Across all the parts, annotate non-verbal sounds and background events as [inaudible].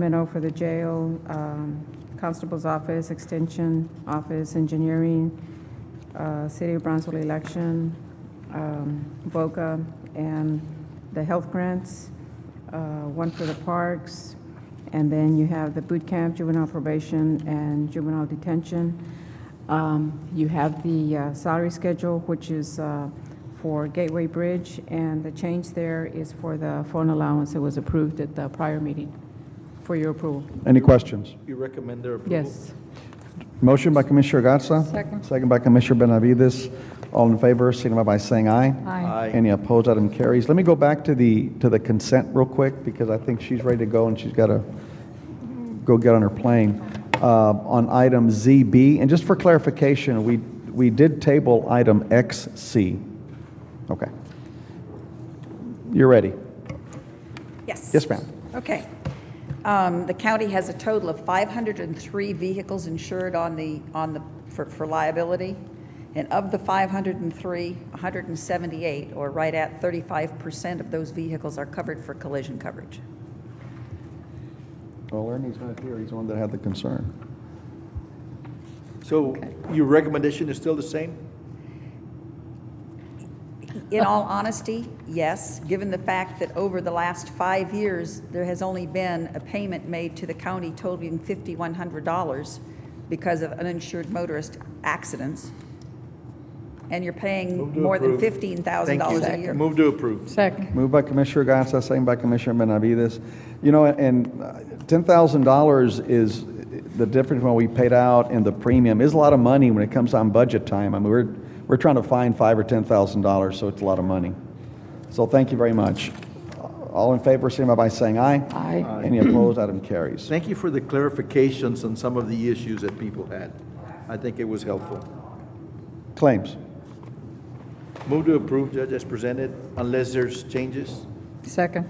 Memo for the jail, um, constable's office, extension office, engineering, uh, city of Brownsville election, um, VOCA, and the health grants, uh, one for the parks, and then you have the boot camp, juvenile probation, and juvenile detention. Um, You have the uh, salary schedule, which is uh, for Gateway Bridge, and the change there is for the phone allowance that was approved at the prior meeting for your approval. Any questions? You recommend their approval? Yes. Motion by Commissioner Gatsa. Second. Second by Commissioner Benavides. All in favor, signify by saying aye. Aye. Aye. Any opposed, item carries. Let me go back to the, to the consent real quick, because I think she's ready to go and she's got to go get on her plane. Uh, On item ZB, and just for clarification, we, we did table item XC. Okay. You're ready? Yes. Yes, ma'am. Okay. Um, The county has a total of 503 vehicles insured on the, on the, for for liability, and of the 503, 178, or right at 35% of those vehicles are covered for collision coverage. Well, Ernie's not here, he's the one that had the concern. So your recommendation is still the same? In all honesty, yes, given the fact that over the last five years, there has only been a payment made to the county totaling $5,100 because of uninsured motorist accidents, and you're Move paying to more than approve. Thank you. $15,000 a year. Move to approve. Second. Moved by Commissioner Gatsa, second by Commissioner Benavides. You know, and uh, $10,000 is, the difference when we paid out and the premium is a lot of money when it comes on budget time. I mean, we're, we're trying to find five or $10,000, so it's a lot of money. So thank you very much. All in favor, signify by saying aye. Aye. Any opposed, item carries. Thank you for the clarifications on some of the issues that people had. I think it was helpful. Claims. Move to approve, Judge, as presented, unless there's changes. Second.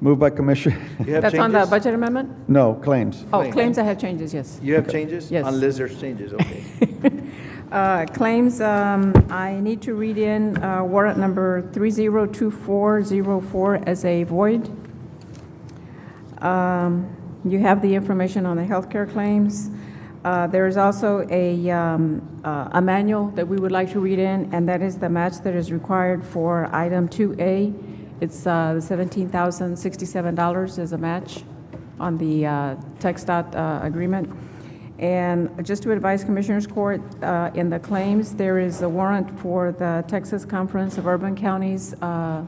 Moved by Commissioner, [laughs] You have That's on the changes? budget amendment? no, claims. Oh, Claims. claims that have changes, yes. You have changes? Yes. Unless there's [laughs] changes, okay. Uh, Claims, um, I need to read in uh, warrant number 302404 as a void. Um, You have the information on the healthcare claims. Uh, There is also a um, uh, a manual that we would like to read in, and that is the match that is required for item 2A. It's uh, the $17,067 as a match on the uh, TxDOT uh, agreement. And just to advise Commissioners Court, uh, in the claims, there is a warrant for the Texas Conference of Urban Counties uh,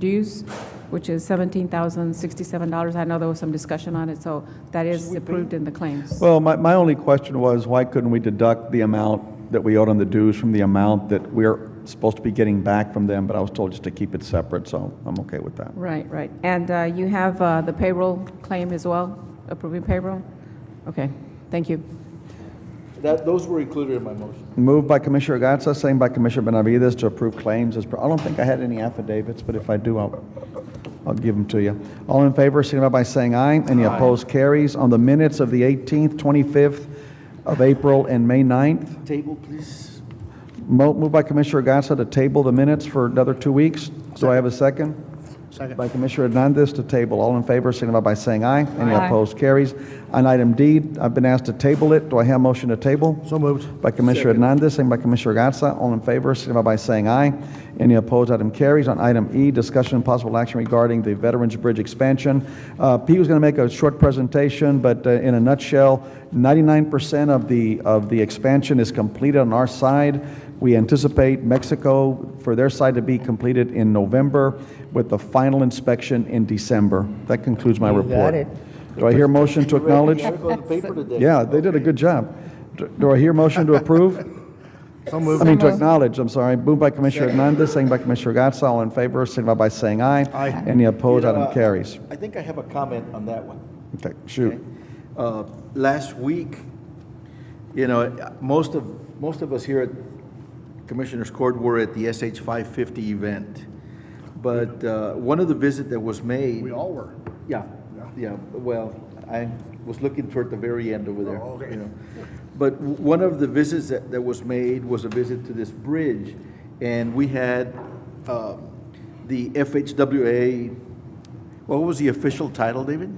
dues, which is $17,067. I know there was some discussion on it, so that is approved in the claims. Well, my, my only question was, why couldn't we deduct the amount that we owed on the dues from the amount that we're supposed to be getting back from them? But I was told just to keep it separate, so I'm okay with that. Right, right. And uh, you have uh, the payroll claim as well, approving payroll? Okay, thank you. That, those were included in my motion. Moved by Commissioner Gatsa, second by Commissioner Benavides to approve claims as, per- I don't think I had any affidavits, but if I do, I'll, I'll give them to you. All in favor, signify by saying aye. Any opposed carries. On the minutes of the 18th, 25th of April, and May 9th, Table, please. Mo- Moved by Commissioner Gatsa to table the minutes for another two weeks. Do I have a second? Second. By Commissioner Hernandez to table. All in favor, signify by saying aye. Any opposed, carries. On item D, I've been asked to table it. Do I have a motion to table? So moved. By Commissioner Hernandez, second by Commissioner Gatsa. All in favor, signify by saying aye. Any opposed, item carries. On item E, discussion and possible action regarding the Veterans Bridge expansion. Uh, Pete was going to make a short presentation, but uh, in a nutshell, 99% of the, of the expansion is completed on our side. We anticipate Mexico, for their side, to be completed in November with the final inspection in December. That concludes my report. Do I hear a motion to acknowledge? Check on the paper today. Yeah, they did a good job. Do- Do I hear a motion to [laughs] approve? I mean, to acknowledge, I'm sorry. Moved by Commissioner Hernandez, second by Commissioner Gatsa. All in favor, signify by saying aye. Aye. Any opposed, You know, item uh, carries. I think I have a comment on that one. Okay, shoot. Uh, Last week, you know, most of, most of us here at Commissioners Court were at the SH 550 event. But uh, one of the visit that was made. We all were. Yeah, yeah, well, I was looking toward the very end over there. you know. But w- one of the visits that, that was made was a visit to this bridge. And we had uh, the FHWA, what was the official title, David?